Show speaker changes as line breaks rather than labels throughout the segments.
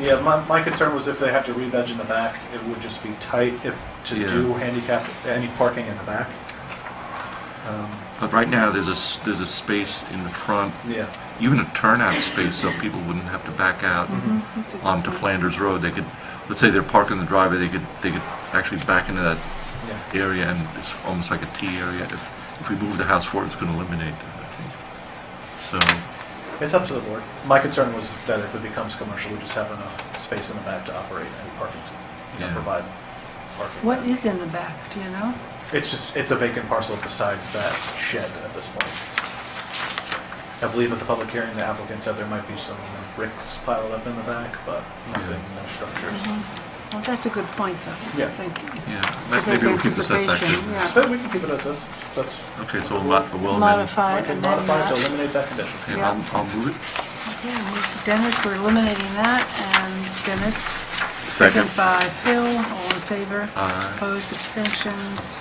Yeah, my, my concern was if they have to re-veg in the back, it would just be tight if, to
Yeah.
do handicap, any parking in the back. Um,
But right now, there's a, s- there's a space in the front,
Yeah,
even a turnout space, so people wouldn't have to back out
That's a good
onto
point.
Flanders Road. They could, let's say they're parked in the driveway, they could, they could actually back into that
yeah.
area, and it's almost like a T area. If, if we move the house forward, it's gonna eliminate that, I think. So,
It's up to the board. My concern was that if it becomes commercial, we just have enough space in the back to operate and parking, you know,
Yeah.
provide parking.
What is in the back, do you know?
It's just, it's a vacant parcel besides that shed at this point. I believe at the public hearing, the applicant said there might be some bricks piled up in the back, but nothing, no
Mm-hmm.
structures.
Well, that's a good point, though.
Yeah.
Thank you.
yeah,
If
that-
there's
maybe we'll keep the setback
anticipation,
there.
yeah.
But we can keep it as is. That's,
Okay, so we'll mo- we'll amend.
Modify
we
it
can
and then
modify it to
that.
eliminate that condition.
Okay, I'll, I'll move it.
Okay, we- Dennis, we're eliminating that, and Dennis.
Second.
by Phil, all in favor.
Aye.
Opposed, abstentions.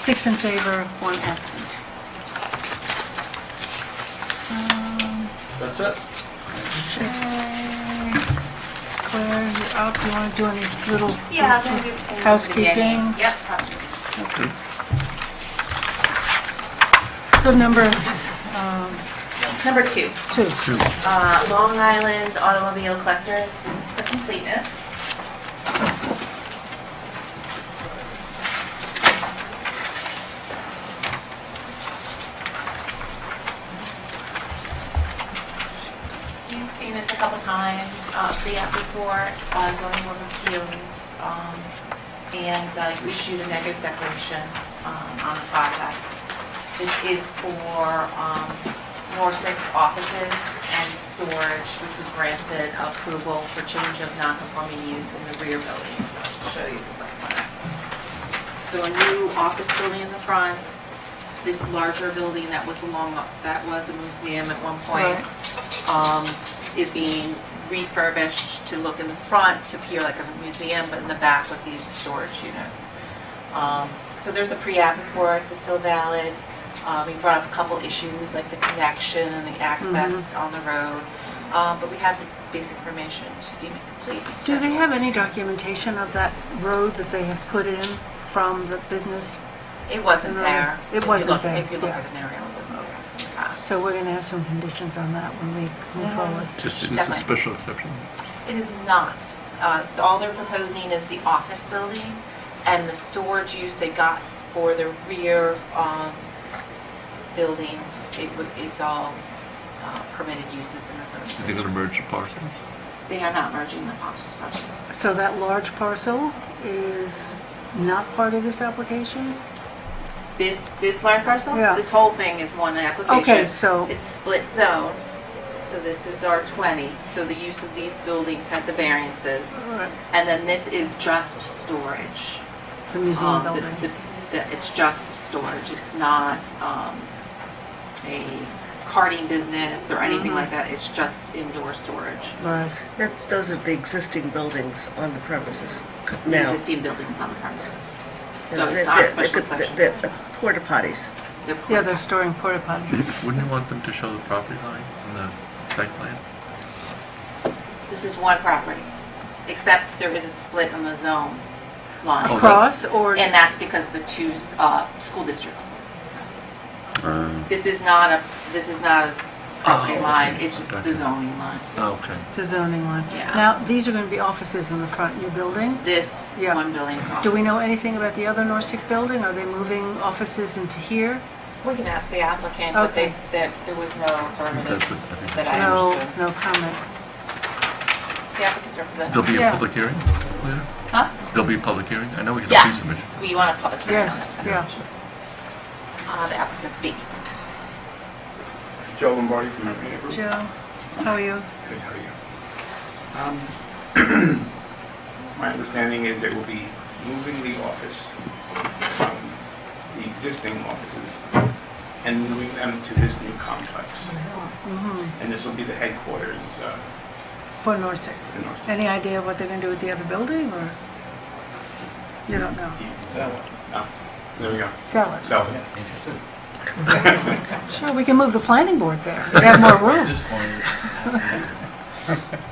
Six in favor, one absent. Um,
That's it.
okay. Claire, you're up, you want to do any little?
Yeah, I'm gonna do things
Housekeeping.
beginning. Yep, housekeeping.
Okay.
So number um,
Number two,
two.
Two.
uh, Long Island Automobile Collectors, this is for completeness. You've seen this a couple times, uh, pre-app report, uh, zoning board of appeals, um, and uh, you issued a negative declaration, um, on the project. This is for, um, Norsex offices and storage, which was granted approval for change of non-conforming use in the rear buildings. I'll show you the site plan. So a new office building in the front, this larger building that was along, that was a museum at one point, um, is being refurbished to look in the front to appear like a museum, but in the back with these storage units. Um, So there's a pre-app report that's still valid. Uh, We brought up a couple issues like the connection and the access
Mm-hmm.
on the road, Uh, but we have the basic information to deem it complete and
Do they
scheduled.
have any documentation of that road that they have put in from the business?
It wasn't
No,
there.
it
If you
wasn't
look-
there,
If you look
yeah.
at an aerial, it wasn't there.
So we're going to have some conditions on that when we move
Mhm.
forward.
Just, it's a
Definitely.
special exception.
It is not. Uh, All they're proposing is the office building and the storage use they got for the rear um, buildings. It would- is all uh, permitted uses in the zoning
Are they gonna
district.
merge the parcels?
They are not merging the parcels. parcels.
So that large parcel is not part of this application?
This, this large parcel?
Yeah.
This whole thing is one application.
Okay, so-
It's split zoned, so this is R20. So the use of these buildings had the variances. And then this is just storage.
The museum
Um, the-
building?
the- the- It's just storage, it's not um, a carting business or
Mm-hmm.
anything like that, it's just indoor storage.
Right.
That's, those are the existing buildings on the premises
The
now.
Existing buildings on the premises. So
They're-
it's not a
they're-
special
they're-
exception.
they're uh, Porta potties.
They're
Yeah, they're storing porta potties.
Wouldn't you want them to show the property line on the site plan?
This is one property, except there is a split on the zone
Oh,
line.
Across or,
Oh, And that's because the two uh, school districts.
Uh.
This is not a, this is not a property
Oh,
line,
okay,
it's just
okay.
the zoning line.
Okay.
it's a zoning one?
Yeah.
Now, these are going to be offices in the front of your building?
This
Yeah.
one building is offices.
Do we know anything about the other Norsec building? Are they moving offices into here?
We can ask the applicant, but
Okay.
they, that, there was no affirmative
That's it, I think
that
that's it.
I
No,
understood.
no comment.
The applicant's representative.
There'll be a
Yeah.
public hearing later?
Huh?
There'll be a public hearing? I know we can have
Yes,
pre-submission.
we want a public hearing on
Yes,
this.
yeah.
Uh, the applicant speak.
Joe Lombardi from Evergreen Group.
Joe, how are you?
Good, how are you? Um, My understanding is that we'll be moving the office from the existing offices and moving them to this new complex.
Mm-hmm.
And this will be the headquarters uh,
For Norsec?
for North.
Any idea what they're going to do with the other building, or? You don't know?
No, there we go.
Sell it.
So,
Sure, we can move the planning board there. They have more room.